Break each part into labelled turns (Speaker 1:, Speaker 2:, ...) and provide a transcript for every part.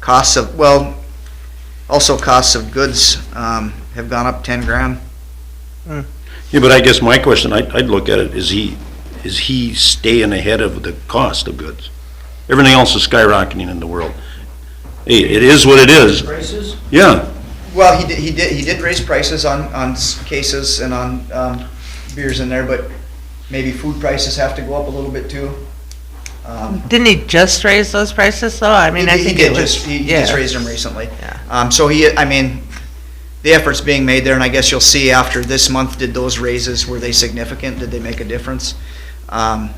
Speaker 1: Costs of, well, also costs of goods, um, have gone up ten grand.
Speaker 2: Yeah, but I guess my question, I'd, I'd look at it, is he, is he staying ahead of the cost of goods? Everything else is skyrocketing in the world. Hey, it is what it is.
Speaker 3: Prices?
Speaker 2: Yeah,
Speaker 1: Well, he did, he did, he did raise prices on, on s- cases and on, um, beers in there, but maybe food prices have to go up a little bit too. Um,
Speaker 4: Didn't he just raise those prices though? I mean,
Speaker 1: He-
Speaker 4: I
Speaker 1: he
Speaker 4: think
Speaker 1: did
Speaker 4: it was.
Speaker 1: just- He he
Speaker 4: yeah.
Speaker 1: just raised them recently.
Speaker 4: Yeah.
Speaker 1: Um, so he, I mean, the effort's being made there, and I guess you'll see after this month, did those raises, were they significant? Did they make a difference? Um,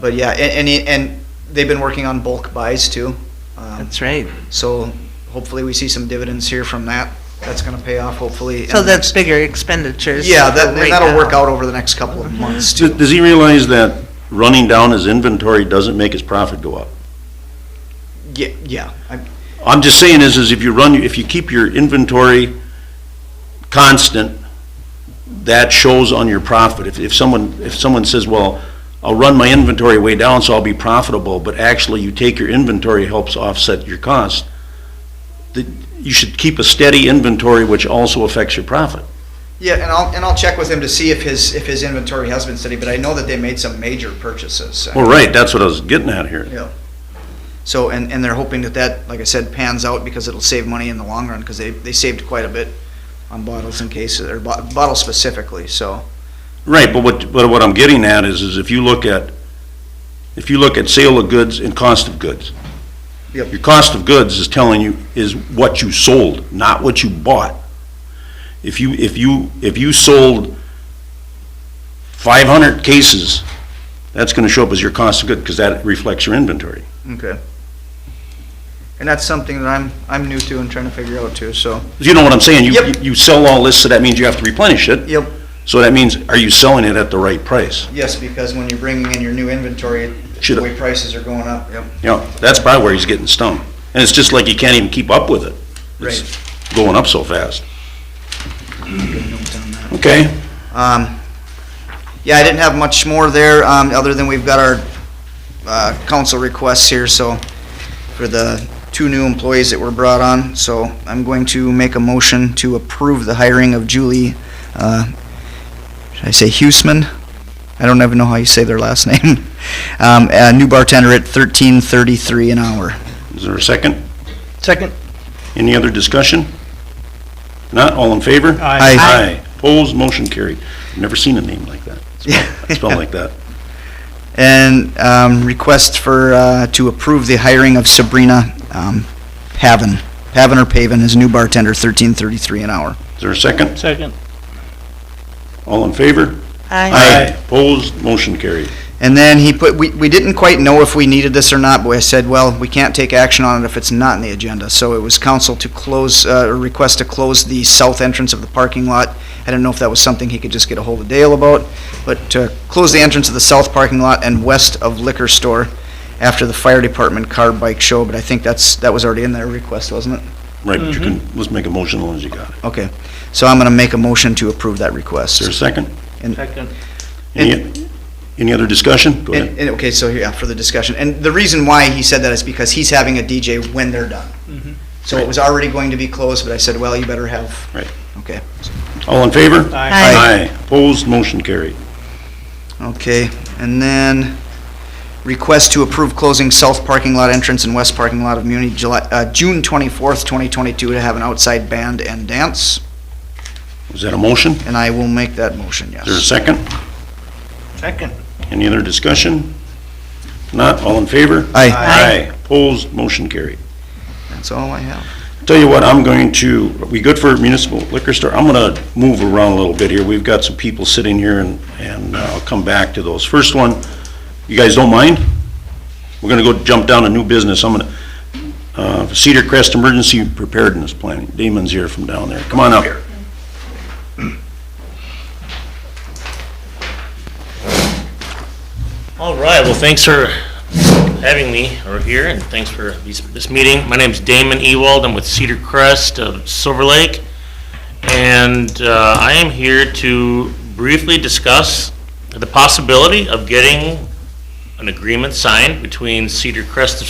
Speaker 1: but yeah, and, and, he- and they've been working on bulk buys too. Um,
Speaker 4: That's right.
Speaker 1: so hopefully we see some dividends here from that. That's gonna pay off hopefully. in
Speaker 4: So
Speaker 1: the
Speaker 4: that's
Speaker 1: next-
Speaker 4: bigger expenditures.
Speaker 1: Yeah, that,
Speaker 4: right
Speaker 1: and that'll
Speaker 4: now.
Speaker 1: work out over the next couple of months
Speaker 2: does,
Speaker 1: too.
Speaker 2: does he realize that running down his inventory doesn't make his profit go up?
Speaker 1: Yeah, yeah. I-
Speaker 2: I'm just saying is, is if you run, if you keep your inventory constant, that shows on your profit. If, if someone, if someone says, well, I'll run my inventory way down so I'll be profitable, but actually you take your inventory helps offset your cost, that you should keep a steady inventory which also affects your profit.
Speaker 1: Yeah, and I'll, and I'll check with him to see if his, if his inventory has been steady, but I know that they made some major purchases.
Speaker 2: Well, right, that's what I was getting at here.
Speaker 1: Yeah. So, and, and they're hoping that that, like I said, pans out because it'll save money in the long run, because they, they saved quite a bit on bottles and cases, or bo- bottles specifically, so.
Speaker 2: Right, but what, but what I'm getting at is, is if you look at, if you look at sale of goods and cost of goods.
Speaker 1: Yep.
Speaker 2: Your cost of goods is telling you, is what you sold, not what you bought. If you, if you, if you sold five hundred cases, that's gonna show up as your cost of good, because that reflects your inventory.
Speaker 1: Okay. And that's something that I'm, I'm new to and trying to figure out too, so.
Speaker 2: You know what I'm saying? You-
Speaker 1: Yep.
Speaker 2: You sell all this, so that means you have to replenish it.
Speaker 1: Yep.
Speaker 2: So that means, are you selling it at the right price?
Speaker 1: Yes, because when you're bringing in your new inventory, the
Speaker 2: Should-
Speaker 1: way prices are going up, yep.
Speaker 2: Yeah, that's probably where he's getting stung. And it's just like you can't even keep up with it. It's Going up so fast.
Speaker 1: Good notes on that.
Speaker 2: Okay.
Speaker 1: Um, yeah, I didn't have much more there, um, other than we've got our, uh, council requests here, so, for the two new employees that were brought on, so I'm going to make a motion to approve the hiring of Julie, uh, should I say Huesman? I don't even know how you say their last name. Um, a new bartender at thirteen thirty-three an hour.
Speaker 2: Is there a second?
Speaker 3: Second.
Speaker 2: Any other discussion? Not? All in favor?
Speaker 3: Aye.
Speaker 2: Aye. Opposed? Motion carried. Never seen a name like that. Spelled like that.
Speaker 1: And, um, request for, uh, to approve the hiring of Sabrina, um, Pavan. Pavan or Pavan is a new bartender, thirteen thirty-three an hour.
Speaker 2: Is there a second?
Speaker 3: Second.
Speaker 2: All in favor?
Speaker 4: I,
Speaker 2: Opposed? Motion carried.
Speaker 1: And then he put, we, we didn't quite know if we needed this or not, but I said, well, we can't take action on it if it's not in the agenda. So it was council to close, uh, or request to close the south entrance of the parking lot. I didn't know if that was something he could just get a hold of Dale about, but to close the entrance of the south parking lot and west of liquor store after the fire department car bike show, but I think that's, that was already in their request, wasn't it?
Speaker 2: Right, but you
Speaker 3: Mm-hmm.
Speaker 2: can, let's make a motion as long as you got it.
Speaker 1: Okay, so I'm gonna make a motion to approve that request.
Speaker 2: Is there a second?
Speaker 3: Second.
Speaker 2: Any, any other discussion? Go ahead.
Speaker 1: And, and, okay, so, yeah, for the discussion, and the reason why he said that is because he's having a DJ when they're done. So it was already going to be closed, but I said, well, you better have.
Speaker 2: Right.
Speaker 1: Okay,
Speaker 2: All in favor?
Speaker 3: Aye.
Speaker 4: Aye.
Speaker 2: Opposed? Motion carried.
Speaker 1: okay, and then request to approve closing south parking lot entrance and west parking lot of Muni, July, uh, June twenty-fourth, twenty twenty-two, to have an outside band and dance,
Speaker 2: Is that a motion? Is
Speaker 1: and I will make that motion, yes.
Speaker 2: there a second?
Speaker 3: Second.
Speaker 2: Any other discussion? Not, all in favor?
Speaker 1: Aye,
Speaker 2: Aye. Opposed, motion carried.
Speaker 1: that's all I have.
Speaker 2: Tell you what, I'm going to, are we good for municipal liquor store? I'm gonna move around a little bit here. We've got some people sitting here and, and uh, I'll come back to those. First one, you guys don't mind? We're gonna go jump down to new business. I'm gonna, uh, Cedar Crest Emergency Preparedness Planning. Damon's here from down there. Come on up.
Speaker 5: All right, well, thanks for having me over here, and thanks for these- this meeting. My name's Damon Ewald, I'm with Cedar Crest of Silver Lake, and uh, I am here to briefly discuss the possibility of getting an agreement signed between Cedar Crest of